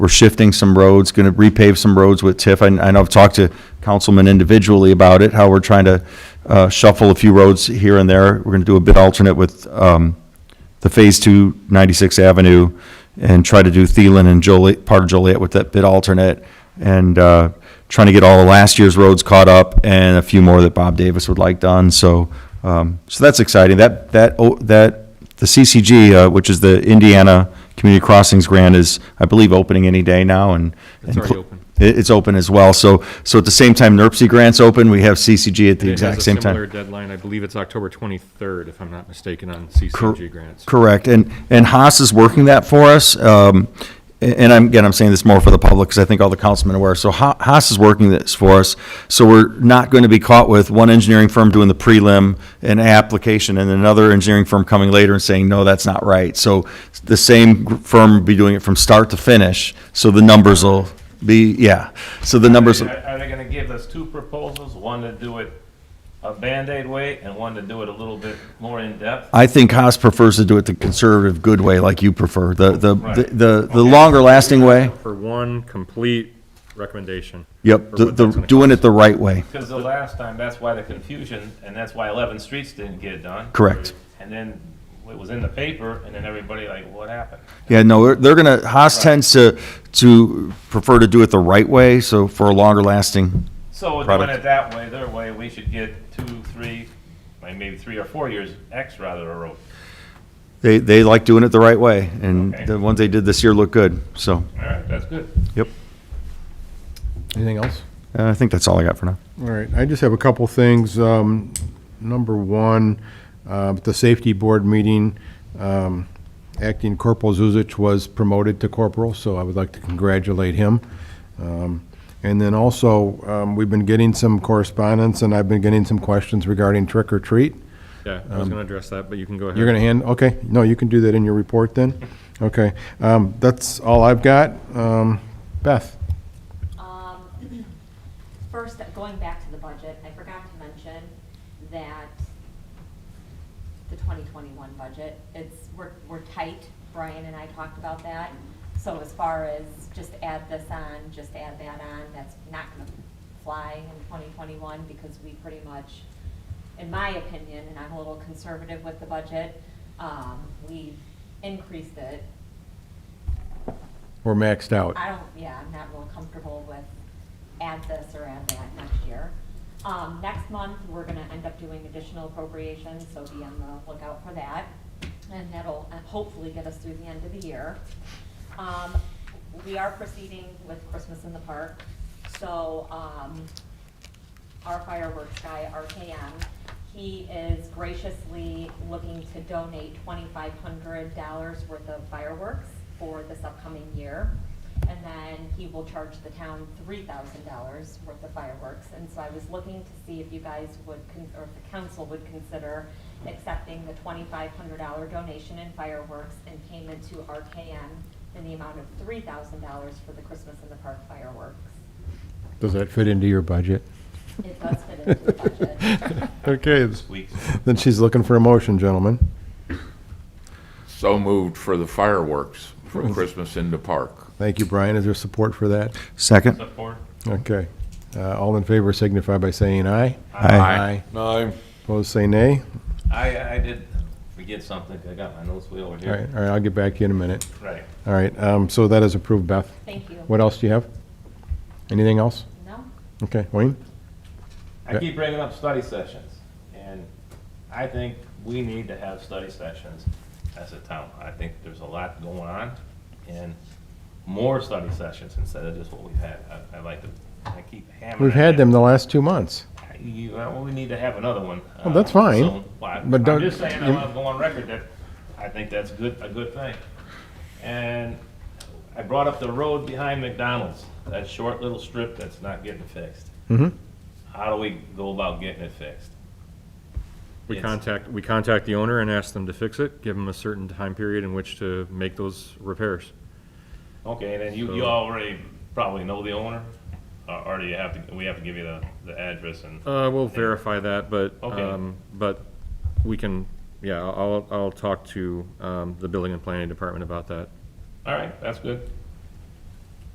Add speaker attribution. Speaker 1: We're shifting some roads, going to repave some roads with TIF. I, I know I've talked to councilmen individually about it, how we're trying to uh, shuffle a few roads here and there. We're going to do a bid alternate with um, the Phase Two 96 Avenue and try to do Thielen and Joliet, part of Joliet with that bid alternate. And uh, trying to get all of last year's roads caught up and a few more that Bob Davis would like done. So, um, so that's exciting. That, that, oh, that, the CCG, uh, which is the Indiana Community Crossings Grant is, I believe, opening any day now and. It's
Speaker 2: already open.
Speaker 1: it's open as well. So, so at the same time NERC grant's open, we have CCG at the exact same time.
Speaker 2: It has a similar deadline, I believe it's October 23rd, if I'm not mistaken, on CCG grants.
Speaker 1: Correct, and, and Haas is working that for us. um, a- And I'm, again, I'm saying this more for the public, because I think all the councilmen are aware. So Ha- Haas is working this for us, so we're not going to be caught with one engineering firm doing the prelim and application, and another engineering firm coming later and saying, no, that's not right. So the same gr- firm will be doing it from start to finish, so the numbers will be, yeah, so the numbers.
Speaker 3: Are are they gonna give us two proposals, one to do it a Band-Aid way and one to do it a little bit more in-depth?
Speaker 1: I think Haas prefers to do it the conservative, good way, like you prefer, the, the, the-
Speaker 3: Right.
Speaker 1: the, the longer lasting way.
Speaker 2: For one complete recommendation.
Speaker 1: Yep,
Speaker 2: Or
Speaker 1: the,
Speaker 2: what
Speaker 1: the,
Speaker 2: that's gonna
Speaker 1: doing
Speaker 2: cost.
Speaker 1: it the right way,
Speaker 3: Because the last time, that's why the confusion, and that's why 11 Streets didn't get done.
Speaker 1: correct.
Speaker 3: And then it was in the paper, and then everybody like, what happened?
Speaker 1: Yeah, no, they're, they're gonna, Haas tends to, to prefer to do it the right way, so for a longer lasting,
Speaker 3: So doing
Speaker 1: Product.
Speaker 3: it that way, their way, we should get two, three, like maybe three or four years X rather a road.
Speaker 1: they, they like doing it the right way, and
Speaker 3: Okay.
Speaker 1: the ones they did this year look good, so,
Speaker 3: All right, that's good.
Speaker 1: yep.
Speaker 4: Anything else?
Speaker 1: Uh, I think that's all I got for now.
Speaker 4: All right, I just have a couple things. Um, Number one, uh, the safety board meeting, um, Acting Corporal Zuzic was promoted to corporal, so I would like to congratulate him. Um, And then also, um, we've been getting some correspondence, and I've been getting some questions regarding trick or treat.
Speaker 2: Yeah,
Speaker 1: Um,
Speaker 2: I was going to address that, but you can go ahead.
Speaker 4: You're going to hand, okay, no, you can do that in your report then? Okay, um, that's all I've got. Um, Beth?
Speaker 5: Um, First, going back to the budget, I forgot to mention that the 2021 budget, it's, we're, we're tight. Brian and I talked about that. So as far as just add this on, just add that on, that's not going to fly in 2021 because we pretty much, in my opinion, and I'm a little conservative with the budget, um, we increased it
Speaker 4: We're maxed out.
Speaker 5: I don't, yeah, I'm not real comfortable with add this or add that next year. Um, next month, we're gonna end up doing additional appropriations, so be on the lookout for that. And that'll uh, hopefully get us through the end of the year. Um, we are proceeding with Christmas in the Park, so, um, our fireworks guy, RKM. He is graciously looking to donate twenty-five hundred dollars worth of fireworks for this upcoming year. And then he will charge the town three thousand dollars worth of fireworks. And so I was looking to see if you guys would, con- or if the council would consider accepting the twenty-five hundred dollar donation in fireworks and payment to RKM in the amount of three thousand dollars for the Christmas in the Park fireworks.
Speaker 4: Does that fit into your budget?
Speaker 5: It does fit into the budget.
Speaker 4: Okay, it's-
Speaker 3: Weeks.
Speaker 4: then she's looking for a motion, gentlemen.
Speaker 6: So moved for the fireworks for Christmas in the park.
Speaker 4: Thank you, Brian. Is there support for that?
Speaker 1: Second,
Speaker 3: Support.
Speaker 4: Okay. Uh, All in favor signify by saying aye.
Speaker 2: uh,
Speaker 1: Aye.
Speaker 6: Aye.
Speaker 4: Opposed, say nay.
Speaker 3: I, I did forget something, 'cause I got my notes way over
Speaker 4: All right,
Speaker 3: here.
Speaker 4: all right, I'll get back to you in a minute.
Speaker 3: Right.
Speaker 4: All right, um, so that is approved, Beth.
Speaker 5: Thank you.
Speaker 4: What else do you have? Anything else?
Speaker 5: No?
Speaker 4: Okay, Wayne?
Speaker 3: I keep bringing up study sessions, and I think we need to have study sessions as a town. I think there's a lot going on, and more study sessions instead of just what we've had. I, I like to, I keep hammering.
Speaker 4: We've had them the last two months.
Speaker 3: You, uh, well, we need to have another one.
Speaker 4: Well, that's
Speaker 3: uh,
Speaker 4: fine,
Speaker 3: soon. Well, I-
Speaker 4: but don't-
Speaker 3: I'm just saying, I'm
Speaker 4: you-
Speaker 3: gonna go on record that I think that's good, a good thing. And I brought up the road behind McDonald's, that short little strip that's not getting fixed.
Speaker 4: Mhm.
Speaker 3: How do we go about getting it fixed?
Speaker 2: We
Speaker 3: Yes.
Speaker 2: contact, we contact the owner and ask them to fix it, give them a certain time period in which to make those repairs.
Speaker 3: Okay, and then you, you
Speaker 2: So-
Speaker 3: already probably know the owner, or, or do you have to, we have to give you the, the address and,
Speaker 2: Uh, we'll verify that, but,
Speaker 3: Okay.
Speaker 2: um, but we can, yeah, I'll, I'll talk to, um, the building and planning department about that.
Speaker 3: all right, that's good.